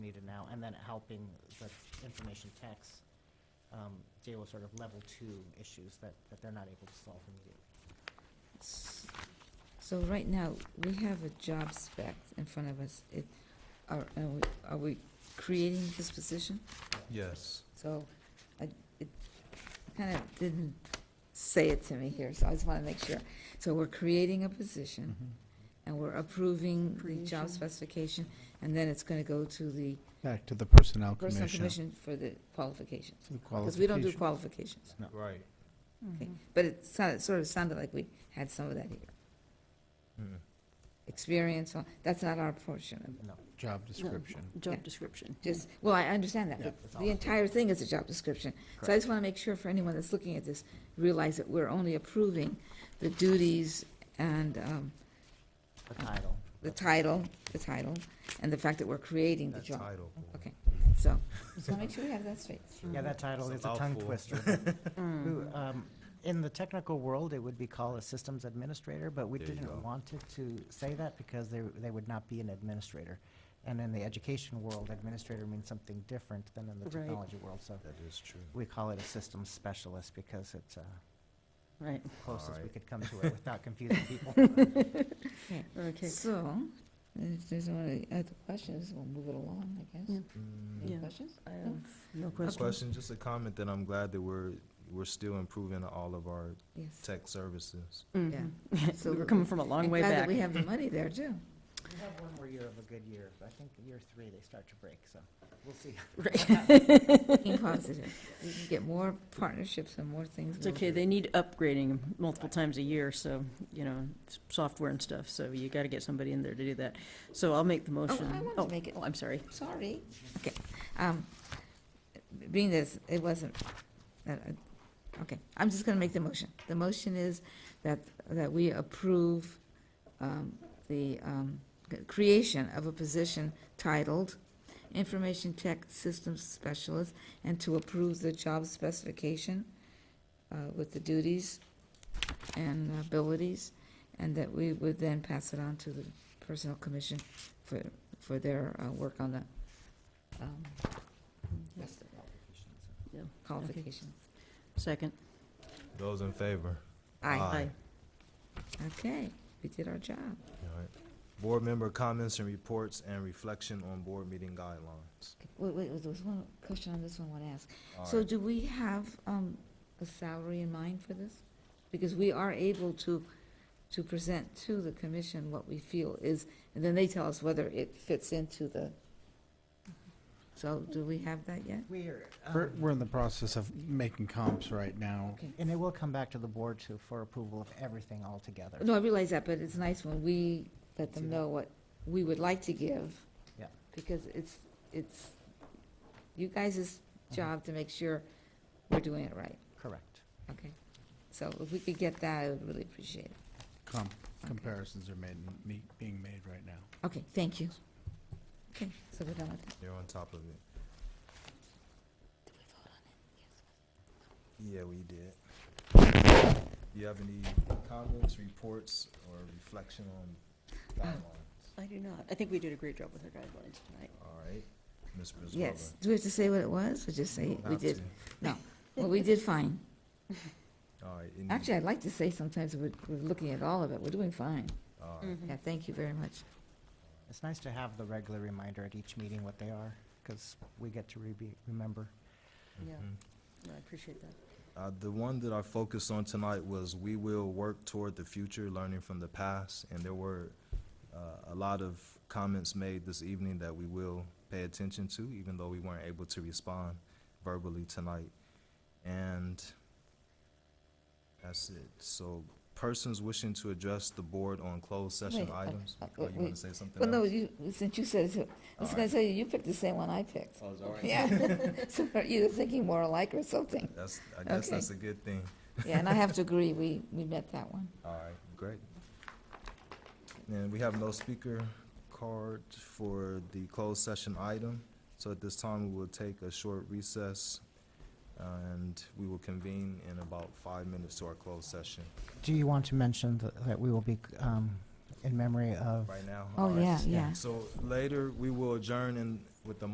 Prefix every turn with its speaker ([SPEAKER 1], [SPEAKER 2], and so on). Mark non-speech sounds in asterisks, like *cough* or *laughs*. [SPEAKER 1] distributed now, and then helping the information tax um, deal with sort of level two issues that, that they're not able to solve immediately.
[SPEAKER 2] So right now, we have a job spec in front of us. It, are, are we, are we creating this position?
[SPEAKER 3] Yes.
[SPEAKER 2] So I, it kind of didn't say it to me here, so I just want to make sure. So we're creating a position and we're approving the job specification, and then it's going to go to the
[SPEAKER 4] Back to the Personnel
[SPEAKER 2] personal
[SPEAKER 4] Oh, Commission.
[SPEAKER 2] commission for the qualifications.
[SPEAKER 4] for the
[SPEAKER 2] Because we don't do
[SPEAKER 4] qualification.
[SPEAKER 2] qualifications.
[SPEAKER 4] No.
[SPEAKER 3] Right.
[SPEAKER 5] Mm-hmm.
[SPEAKER 2] Okay, But it sounded, sort of sounded like we had some of that here.
[SPEAKER 3] Mm.
[SPEAKER 2] Experience, well, that's not our portion of it.
[SPEAKER 1] No,
[SPEAKER 4] Job description.
[SPEAKER 2] Yeah.
[SPEAKER 5] Job description.
[SPEAKER 2] Just, well, I understand that,
[SPEAKER 4] Yeah,
[SPEAKER 2] but
[SPEAKER 1] it's all-
[SPEAKER 2] the entire thing is a job description. So I just want to make sure for anyone that's looking at this, realize that we're only approving the duties and um,
[SPEAKER 1] the title.
[SPEAKER 2] the title, the title, and the fact that we're creating the
[SPEAKER 3] That
[SPEAKER 2] job.
[SPEAKER 3] title.
[SPEAKER 2] Okay, so, just want to make sure we have that straight.
[SPEAKER 5] Mm.
[SPEAKER 1] Yeah, that title
[SPEAKER 3] It's
[SPEAKER 1] is
[SPEAKER 3] a
[SPEAKER 1] a tongue
[SPEAKER 3] mouthful.
[SPEAKER 1] twister.
[SPEAKER 2] *laughs*
[SPEAKER 1] Who, um, In the technical world, it would be called a systems administrator, but we
[SPEAKER 3] There you go.
[SPEAKER 1] didn't want it to say that because they, they would not be an administrator. And in the education world, administrator means something different than in the
[SPEAKER 5] Right.
[SPEAKER 1] technology world, so
[SPEAKER 3] That is true.
[SPEAKER 1] we call it a systems specialist because it's uh,
[SPEAKER 5] Right,
[SPEAKER 1] closest we
[SPEAKER 3] Alright.
[SPEAKER 1] could come to it
[SPEAKER 4] *laughs*
[SPEAKER 1] without confusing people.
[SPEAKER 5] okay.
[SPEAKER 2] So, if there's any other questions, we'll move it along, I guess.
[SPEAKER 5] Yeah.
[SPEAKER 3] Mm.
[SPEAKER 2] Any
[SPEAKER 5] Yeah.
[SPEAKER 2] questions?
[SPEAKER 5] I have no
[SPEAKER 3] A
[SPEAKER 5] question.
[SPEAKER 3] Question, just a comment that I'm glad that we're, we're still improving all of our
[SPEAKER 2] Yes.
[SPEAKER 3] tech services.
[SPEAKER 5] Mhm. We
[SPEAKER 2] absolutely.
[SPEAKER 5] were coming from a long
[SPEAKER 2] I'm
[SPEAKER 5] way
[SPEAKER 2] glad that
[SPEAKER 5] back.
[SPEAKER 2] we have the money there, *laughs* too.
[SPEAKER 1] We have one more year of a good year. I think year three, they start to break, so we'll *laughs* see.
[SPEAKER 2] Being positive. We can get more partnerships and more things.
[SPEAKER 5] It's okay, they need upgrading multiple times a year, so, you know, s- software and stuff, so you gotta get somebody in there to do that. So I'll make the motion.
[SPEAKER 2] wanted to make it-
[SPEAKER 5] Oh, I'm sorry.
[SPEAKER 2] Sorry. Okay. um, Being this, it wasn't, uh, uh, okay, I'm just going to make the motion. The motion is that, that we approve um, the um, c- creation of a position titled Information Tech Systems Specialist, and to approve the job specification uh, with the duties and abilities, and that we would then pass it on to the Personnel Commission for, for their uh, work on the um, rest of the
[SPEAKER 5] Yeah.
[SPEAKER 2] qualifications.
[SPEAKER 5] Second.
[SPEAKER 3] Those in favor?
[SPEAKER 2] Aye.
[SPEAKER 3] Aye. Ah.
[SPEAKER 2] Okay, we did our job.
[SPEAKER 3] All right. Board member comments and reports and reflection on board meeting guidelines.
[SPEAKER 2] Wait, wait, there was one question on this one I want to ask.
[SPEAKER 3] All
[SPEAKER 2] So
[SPEAKER 3] right.
[SPEAKER 2] do we have um, a salary in mind for this? Because we are able to, to present to the commission what we feel is, and then they tell us whether it fits into the, so do we have that yet?
[SPEAKER 1] We're,
[SPEAKER 4] We're,
[SPEAKER 1] um,
[SPEAKER 4] we're in the process of making comps right now.
[SPEAKER 2] Okay.
[SPEAKER 1] and it will come back to the board too for approval of everything altogether.
[SPEAKER 2] No, I realize that, but it's nice when we let them know what we would like to give.
[SPEAKER 1] Yeah.
[SPEAKER 2] Because it's, it's you guys' job to make sure we're doing it right,
[SPEAKER 1] Correct.
[SPEAKER 2] okay? So if we could get that, I would really appreciate it.
[SPEAKER 4] Comp, comparisons are made, me- being made right now.
[SPEAKER 2] Okay, thank you. Okay, so we're done with that.
[SPEAKER 3] You're on top of it.
[SPEAKER 2] Did we vote on
[SPEAKER 3] Yeah, we did. Do you have any comments, reports, or reflection on guidelines?
[SPEAKER 5] I do not. I think we did a great job with our guidelines tonight.
[SPEAKER 3] All right. Ms.
[SPEAKER 2] it?
[SPEAKER 3] Brizbala.
[SPEAKER 2] Yes, do we have to say what it was, or just say we
[SPEAKER 3] Have
[SPEAKER 2] did?
[SPEAKER 3] to.
[SPEAKER 2] No, well, we did fine.
[SPEAKER 3] All right. any-
[SPEAKER 2] Actually, I'd like to say sometimes we're, we're looking at all of it, we're doing fine.
[SPEAKER 3] All right.
[SPEAKER 5] Mm-hmm.
[SPEAKER 2] Yeah, thank you very much.
[SPEAKER 1] It's nice to have the regular reminder at each meeting what they are, because we get to rebe- remember.
[SPEAKER 5] Yeah,
[SPEAKER 3] Mhm.
[SPEAKER 5] I appreciate that.
[SPEAKER 3] Uh, the one that I focused on tonight was we will work toward the future, learning from the past. And there were uh, a lot of comments made this evening that we will pay attention to, even though we weren't able to respond verbally tonight. And that's it. So persons wishing to address the board on closed session
[SPEAKER 2] Wait, uh,
[SPEAKER 3] items.
[SPEAKER 2] uh,
[SPEAKER 3] Oh, you want
[SPEAKER 2] wait.
[SPEAKER 3] to say something
[SPEAKER 2] Well, no,
[SPEAKER 3] else?
[SPEAKER 2] you, since you said it, I was
[SPEAKER 3] All
[SPEAKER 2] gonna
[SPEAKER 3] right.
[SPEAKER 2] tell you, you picked the same one I picked.
[SPEAKER 3] Oh, is that right?
[SPEAKER 2] Yeah, *laughs* so we're either thinking more alike or
[SPEAKER 3] *laughs*
[SPEAKER 2] something.
[SPEAKER 3] That's, I guess
[SPEAKER 2] Okay.
[SPEAKER 3] that's a good thing.
[SPEAKER 2] Yeah, and I have to agree, we, we met that one.
[SPEAKER 3] All right, great. And we have no speaker card for the closed session item. So at this time, we will take a short recess uh, and we will convene in about five minutes to our closed session
[SPEAKER 1] Do you want to mention th- that we will be um, in memory of
[SPEAKER 3] right now.
[SPEAKER 2] Oh,
[SPEAKER 3] all right?
[SPEAKER 2] yeah, yeah.
[SPEAKER 3] So later, we will adjourn in with the